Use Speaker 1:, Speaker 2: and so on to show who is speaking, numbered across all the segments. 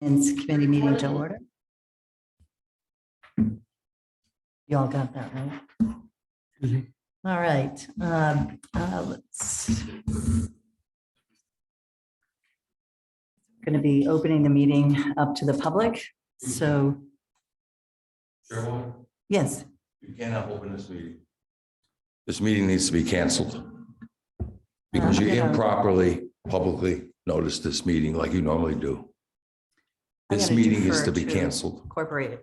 Speaker 1: And it's committee meeting to order. You all got that, right?
Speaker 2: Mhm.
Speaker 1: All right, um, uh, let's. Going to be opening the meeting up to the public, so,
Speaker 3: Chairwoman,
Speaker 1: yes,
Speaker 3: you cannot open this meeting. This meeting needs to be canceled. Because you
Speaker 1: Uh, yeah.
Speaker 3: improperly publicly noticed this meeting like you normally do.
Speaker 1: I'm
Speaker 3: This
Speaker 1: gonna
Speaker 3: meeting is
Speaker 1: defer
Speaker 3: to be
Speaker 1: to-
Speaker 3: canceled.
Speaker 1: incorporated.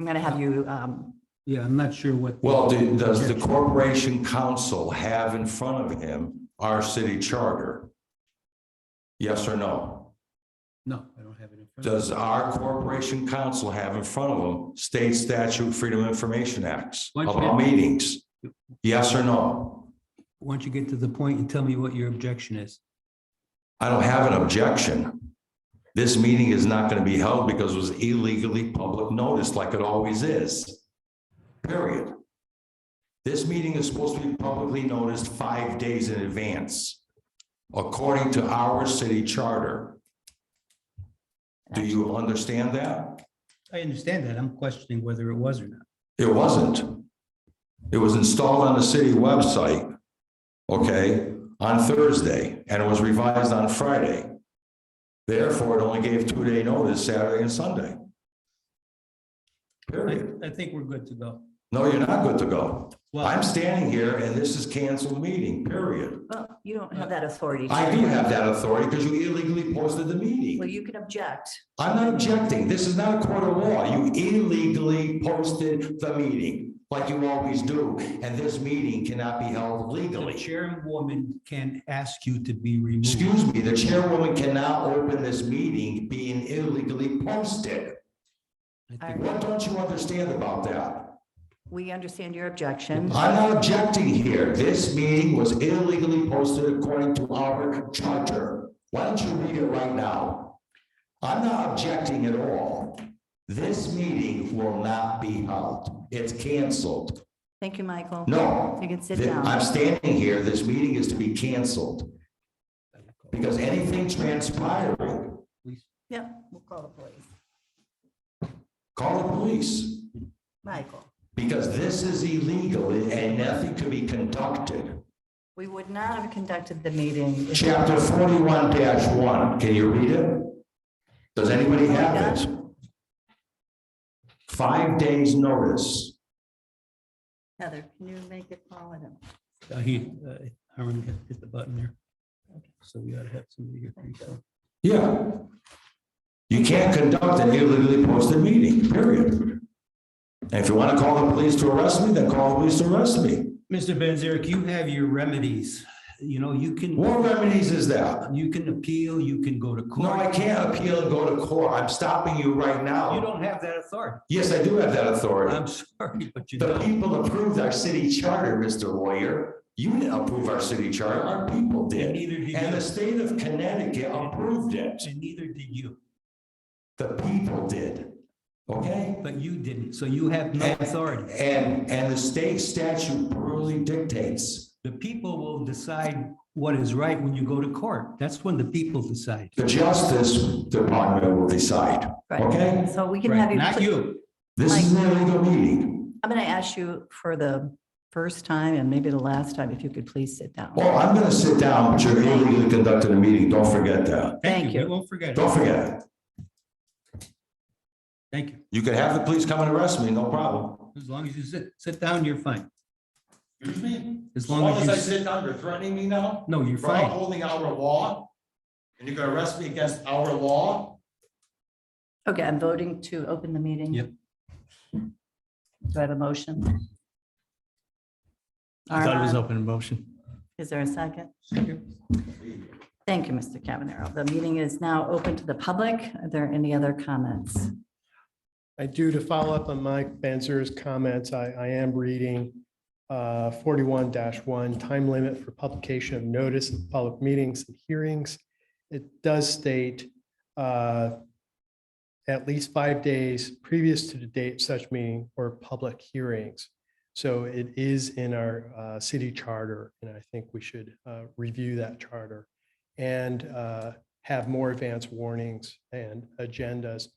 Speaker 1: I'm going to have you, um,
Speaker 2: Yeah, I'm not sure what.
Speaker 3: Well, do- does the corporation council have in front of him our city charter? Yes or no?
Speaker 2: No, I don't have it in front. of me.
Speaker 3: Does our corporation council have in front of them state statute Freedom of Information Acts
Speaker 2: Why don't you-
Speaker 3: about meetings? Yes or no?
Speaker 2: Why don't you get to the point and tell me what your objection is?
Speaker 3: I don't have an objection. This meeting is not going to be held because it was illegally public notice like it always is. Period. This meeting is supposed to be publicly noticed five days in advance, according to our city charter. Do you understand that?
Speaker 2: I understand that. I'm questioning whether it was or not.
Speaker 3: It wasn't. It was installed on the city website, okay, on Thursday, and it was revised on Friday. Therefore, it only gave two-day notice Saturday and Sunday. Period.
Speaker 2: I, I think we're good to go.
Speaker 3: No, you're not good to go. I'm
Speaker 2: Well,
Speaker 3: standing here and this is canceled meeting, period.
Speaker 1: well, you don't have that authority.
Speaker 3: I do have that authority because you illegally posted the
Speaker 1: Well,
Speaker 3: meeting.
Speaker 1: you can object.
Speaker 3: I'm not objecting. This is not a court of law. You illegally posted the meeting like you always do, and this meeting cannot be held
Speaker 2: the
Speaker 3: legally.
Speaker 2: chairwoman can ask you to be removed.
Speaker 3: Excuse me, the chairwoman cannot open this meeting being illegally posted.
Speaker 2: I think-
Speaker 3: What don't you understand about that?
Speaker 1: We understand your objection.
Speaker 3: I'm not objecting here. This meeting was illegally posted according to our charter. Why don't you read it right now? I'm not objecting at all. This meeting will not be held. It's canceled.
Speaker 1: Thank you, Michael.
Speaker 3: No.
Speaker 1: You can sit
Speaker 3: Th-
Speaker 1: down.
Speaker 3: I'm standing here, this meeting is to be canceled. Because anything transpiring,
Speaker 1: Yep, we'll call the police.
Speaker 3: call the police,
Speaker 1: Michael,
Speaker 3: because this is illegal and nothing can be conducted.
Speaker 1: we would not have conducted the meeting. if-
Speaker 3: Chapter forty-one one, can you read it? Does anybody have it? Five days notice.
Speaker 1: Heather, can you make it follow them?
Speaker 2: Uh, He, uh, Harmon hit hit the button there. So we ought to have somebody here. pretty soon.
Speaker 3: Yeah. You can't conduct an illegally posted meeting, period. And if you want to call the police to arrest me, then call the police to arrest me.
Speaker 2: Mr. Benzerik, you have your remedies. You know, you can,
Speaker 3: What remedies is that?
Speaker 2: you can appeal, you can go to
Speaker 3: No,
Speaker 2: court.
Speaker 3: I can't appeal and go to court. I'm stopping you right
Speaker 2: You
Speaker 3: now.
Speaker 2: don't have that authority.
Speaker 3: Yes, I do have that authority.
Speaker 2: I'm sorry, but you
Speaker 3: The
Speaker 2: don't.
Speaker 3: people approved our city charter, Mr. Lawyer. You didn't approve our city charter, our people did.
Speaker 2: Neither did you.
Speaker 3: And the state of Connecticut approved it.
Speaker 2: And neither did you,
Speaker 3: The people did. Okay?
Speaker 2: but you didn't, so you have no authority.
Speaker 3: And, and the state statute really dictates,
Speaker 2: The people will decide what is right when you go to court. That's when the people decide.
Speaker 3: the Justice Department will decide, okay?
Speaker 1: So we can have
Speaker 2: Right?
Speaker 1: you,
Speaker 2: Not
Speaker 1: pl-
Speaker 2: you.
Speaker 3: This is an illegal meeting.
Speaker 1: I'm going to ask you for the first time and maybe the last time, if you could please sit down.
Speaker 3: Well, Oh, I'm gonna sit down, but you're illegally conducting a meeting, don't forget that.
Speaker 1: Thank you.
Speaker 2: We won't forget. it.
Speaker 3: Don't forget it.
Speaker 2: Thank you.
Speaker 3: You can have the police come and arrest me, no problem.
Speaker 2: As long as you sit, sit down, you're fine.
Speaker 3: Excuse me?
Speaker 2: As long as you, sit-
Speaker 3: down, you're threatening me now?
Speaker 2: no, you're fine.
Speaker 3: upholding our law? And you're gonna arrest me against our law?
Speaker 1: Okay, I'm voting to open the meeting.
Speaker 2: Yep.
Speaker 1: Do I have a motion?
Speaker 4: I thought it was
Speaker 1: Armand,
Speaker 4: open motion.
Speaker 1: Is there a second?
Speaker 2: Second.
Speaker 1: Thank you, Mr. Cavanero. The meeting is now open to the public. Are there any other comments?
Speaker 5: I do, to follow up on Mike Benzer's comments, I, I am reading uh, forty-one one, time limit for publication of notice of public meetings and hearings. It does state uh, at least five days previous to the date such meeting or public hearings. So it is in our uh, city charter, and I think we should uh, review that charter. And uh, have more advance warnings and agendas